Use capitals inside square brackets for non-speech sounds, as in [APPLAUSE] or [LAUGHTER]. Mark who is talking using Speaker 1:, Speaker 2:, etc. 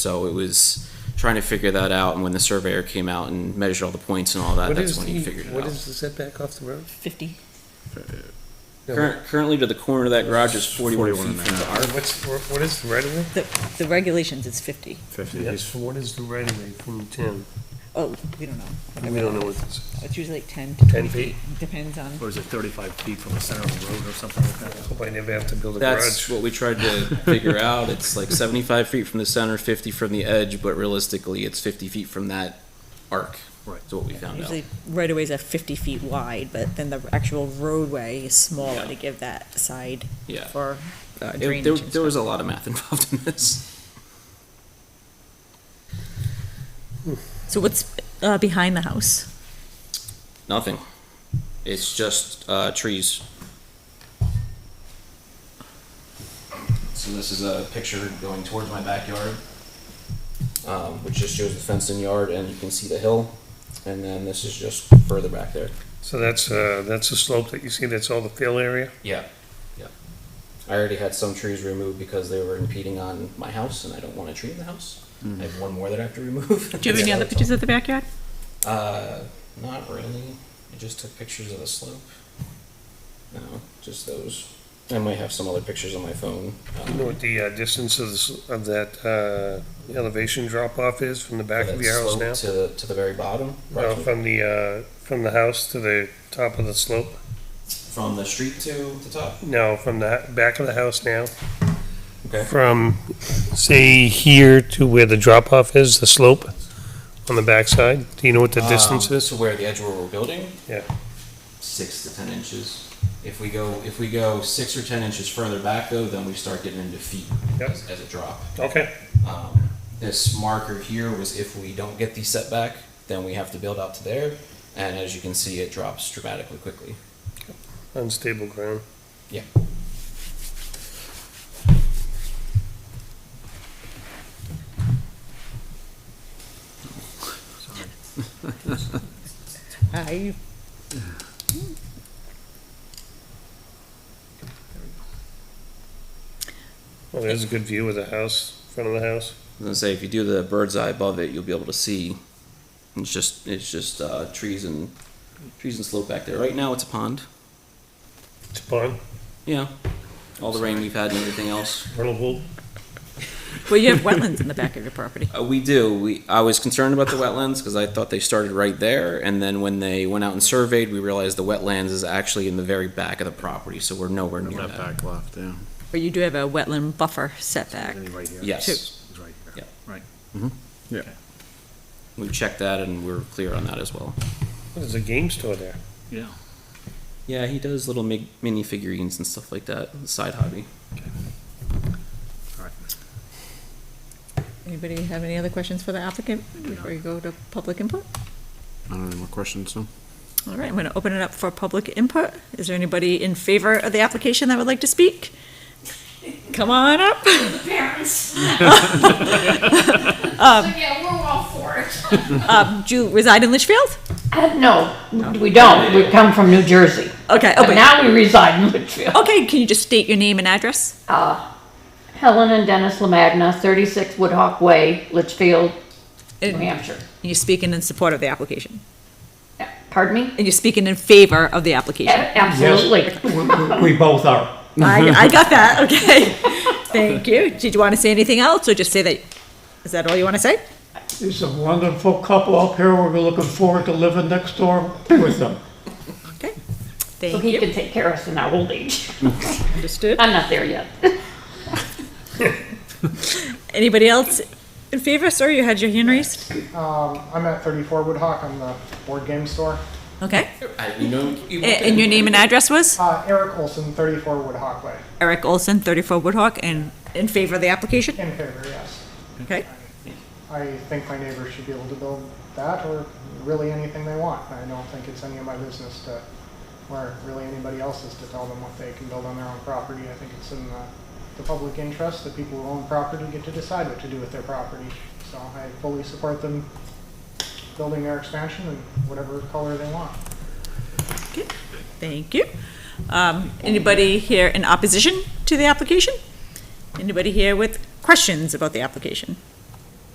Speaker 1: So it was trying to figure that out, and when the surveyor came out and measured all the points and all that,
Speaker 2: What
Speaker 1: that's
Speaker 2: is
Speaker 1: when he
Speaker 2: the,
Speaker 1: figured it
Speaker 2: what
Speaker 1: out.
Speaker 2: is the setback off the road?
Speaker 3: 50.
Speaker 2: No,
Speaker 1: Current- Currently, to the corner of that garage is forty-one
Speaker 4: 41 and a
Speaker 1: feet from the
Speaker 2: what-
Speaker 1: arc.
Speaker 2: What's, what what is the right of way?
Speaker 3: The regulations, it's 50.
Speaker 4: Fifty, he's,
Speaker 2: What is the right of way from ten?
Speaker 3: Oh, we don't know.
Speaker 2: We don't know what this is.
Speaker 3: It's usually like 10 to
Speaker 2: 10
Speaker 3: 20
Speaker 2: feet?
Speaker 3: feet. Depends on,
Speaker 5: Or is it 35 feet from the center of the road or something like that?
Speaker 2: Hope I never have to build a
Speaker 1: That's
Speaker 2: garage.
Speaker 1: what we tried to figure out. It's like seventy-five feet from the center, fifty from the edge, but realistically, it's fifty feet from that arc.
Speaker 5: Right.
Speaker 1: Is what we found out.
Speaker 3: usually right-of-ways are 50 feet wide, but then the actual roadway is
Speaker 1: Yeah.
Speaker 3: smaller to give that side
Speaker 1: Yeah.
Speaker 3: for
Speaker 1: Uh, it-
Speaker 3: drainage
Speaker 1: There
Speaker 3: and
Speaker 1: there was a
Speaker 3: stuff.
Speaker 1: lot of math [LAUGHS] involved in this.
Speaker 3: So what's uh, behind the house?
Speaker 1: Nothing. It's just uh, trees. So this is a picture going towards my backyard, um, which just shows the fenced-in yard, and you can see the hill. And then this is just further back there.
Speaker 2: So that's, uh, that's the slope that you see, that's all the fill area?
Speaker 1: Yeah, yeah. I already had some trees removed because they were impeding on my house, and I don't want a tree in the house. I have one more that I have to remove.
Speaker 3: [LAUGHS] Do you
Speaker 1: [LAUGHS]
Speaker 3: have any other pictures of the backyard?
Speaker 1: Uh, not really. I just took pictures of the slope. No, just those. I might have some other pictures on my phone.
Speaker 2: You know what the, uh, distance of this, of that, uh, elevation drop off is from the back of your house now?
Speaker 1: To the, to the very bottom,
Speaker 2: No, from the, uh, from the house to the top of the slope?
Speaker 1: from the street to the top.
Speaker 2: No, from the h- back of the house now?
Speaker 1: Okay.
Speaker 2: From, say, here to where the drop off is, the slope on the backside? Do you know what the distance
Speaker 1: Um,
Speaker 2: is?
Speaker 1: To where the edge where we're building?
Speaker 2: Yeah.
Speaker 1: Six to ten inches. If we go, if we go six or ten inches further back though, then we start getting into feet
Speaker 2: Yep.
Speaker 1: as as a drop.
Speaker 2: Okay,
Speaker 1: Um, This marker here was if we don't get the setback, then we have to build out to there. And as you can see, it drops dramatically quickly.
Speaker 2: unstable ground.
Speaker 1: Yeah.
Speaker 3: I,
Speaker 2: Well, there's a good view of the house, front of the
Speaker 1: I
Speaker 2: house.
Speaker 1: was gonna say if you do the bird's eye above it, you'll be able to see. It's just it's just uh, trees and trees and slope back there. Right now, it's a pond.
Speaker 2: It's a pond,
Speaker 1: Yeah, all the rain we've had and everything else.
Speaker 2: runnable.
Speaker 3: well, you have wetlands in the back of your property.
Speaker 1: Uh, we do. We I was concerned about the wetlands because I thought they started right there, and then when they went out and surveyed, we realized the wetlands is actually in the very back of the property, so we're nowhere near
Speaker 4: left
Speaker 1: that.
Speaker 4: back left, yeah,
Speaker 3: But you do have a wetland buffer setback.
Speaker 5: Any right here?
Speaker 1: Yes,
Speaker 5: It's right
Speaker 1: Yeah.
Speaker 5: here, right.
Speaker 4: Mm-hmm.
Speaker 1: we checked that and we we're clear on that as well.
Speaker 2: There's a game store there.
Speaker 5: Yeah.
Speaker 1: Yeah, he does little mi- mini figurines and stuff like that. Side hobby.
Speaker 5: All right.
Speaker 3: Anybody have any other questions for the applicant before you go to public input?
Speaker 4: I don't have any more questions, so.
Speaker 3: All right, I'm going to open it up for public input. Is there anybody in favor of the application that would like to speak? Come on up.
Speaker 6: parents. so yeah, we're all for it.
Speaker 3: Um, do you reside in Litchfield?
Speaker 6: Uh, no, we don't. We come from New Jersey,
Speaker 3: Okay,
Speaker 6: Oh, but
Speaker 3: okay.
Speaker 6: now we reside in [LAUGHS] Litchfield.
Speaker 3: okay, can you just state your name and address?
Speaker 6: Uh, Helen and Dennis Lamagna, 36 Woodhawk Way, Litchfield, New
Speaker 3: And
Speaker 6: Hampshire.
Speaker 3: you're speaking in support of the application.
Speaker 6: Yeah, Pardon me?
Speaker 3: And you're speaking in favor of the
Speaker 6: A-
Speaker 3: application.
Speaker 6: Absolutely.
Speaker 7: We both are.
Speaker 3: I, I got that, okay. Thank you. Did you want to say anything else or just say that? Is that all you want to say?
Speaker 7: There's a wonderful couple up here. We're looking forward to living next door with them.
Speaker 3: Okay.
Speaker 6: So
Speaker 3: Thank
Speaker 6: he
Speaker 3: you.
Speaker 6: can take care of us in our old age.
Speaker 3: Understood.
Speaker 6: I'm not there yet.
Speaker 3: Anybody else in favor? Sorry, you had your hand raised.
Speaker 8: Um, I'm at 34 Woodhawk. I'm the board game store.
Speaker 3: Okay.
Speaker 1: I, you know,
Speaker 3: A- And your name and address was?
Speaker 8: Uh, Eric Olson, 34 Woodhawk Way.
Speaker 3: Eric Olson, 34 Woodhawk, and in favor of the application?
Speaker 8: In favor, yes.
Speaker 3: Okay.
Speaker 8: I think my neighbors should be able to build that or really anything they want. I don't think it's any of my business to, or really anybody else's to tell them what they can build on their own property. I think it's in the, the public interest that people who own property get to decide what to do with their property. So I fully support them building their expansion in whatever color they want.
Speaker 3: Okay. Thank you. Um, Anybody here in opposition to the application? Anybody here with questions about the application?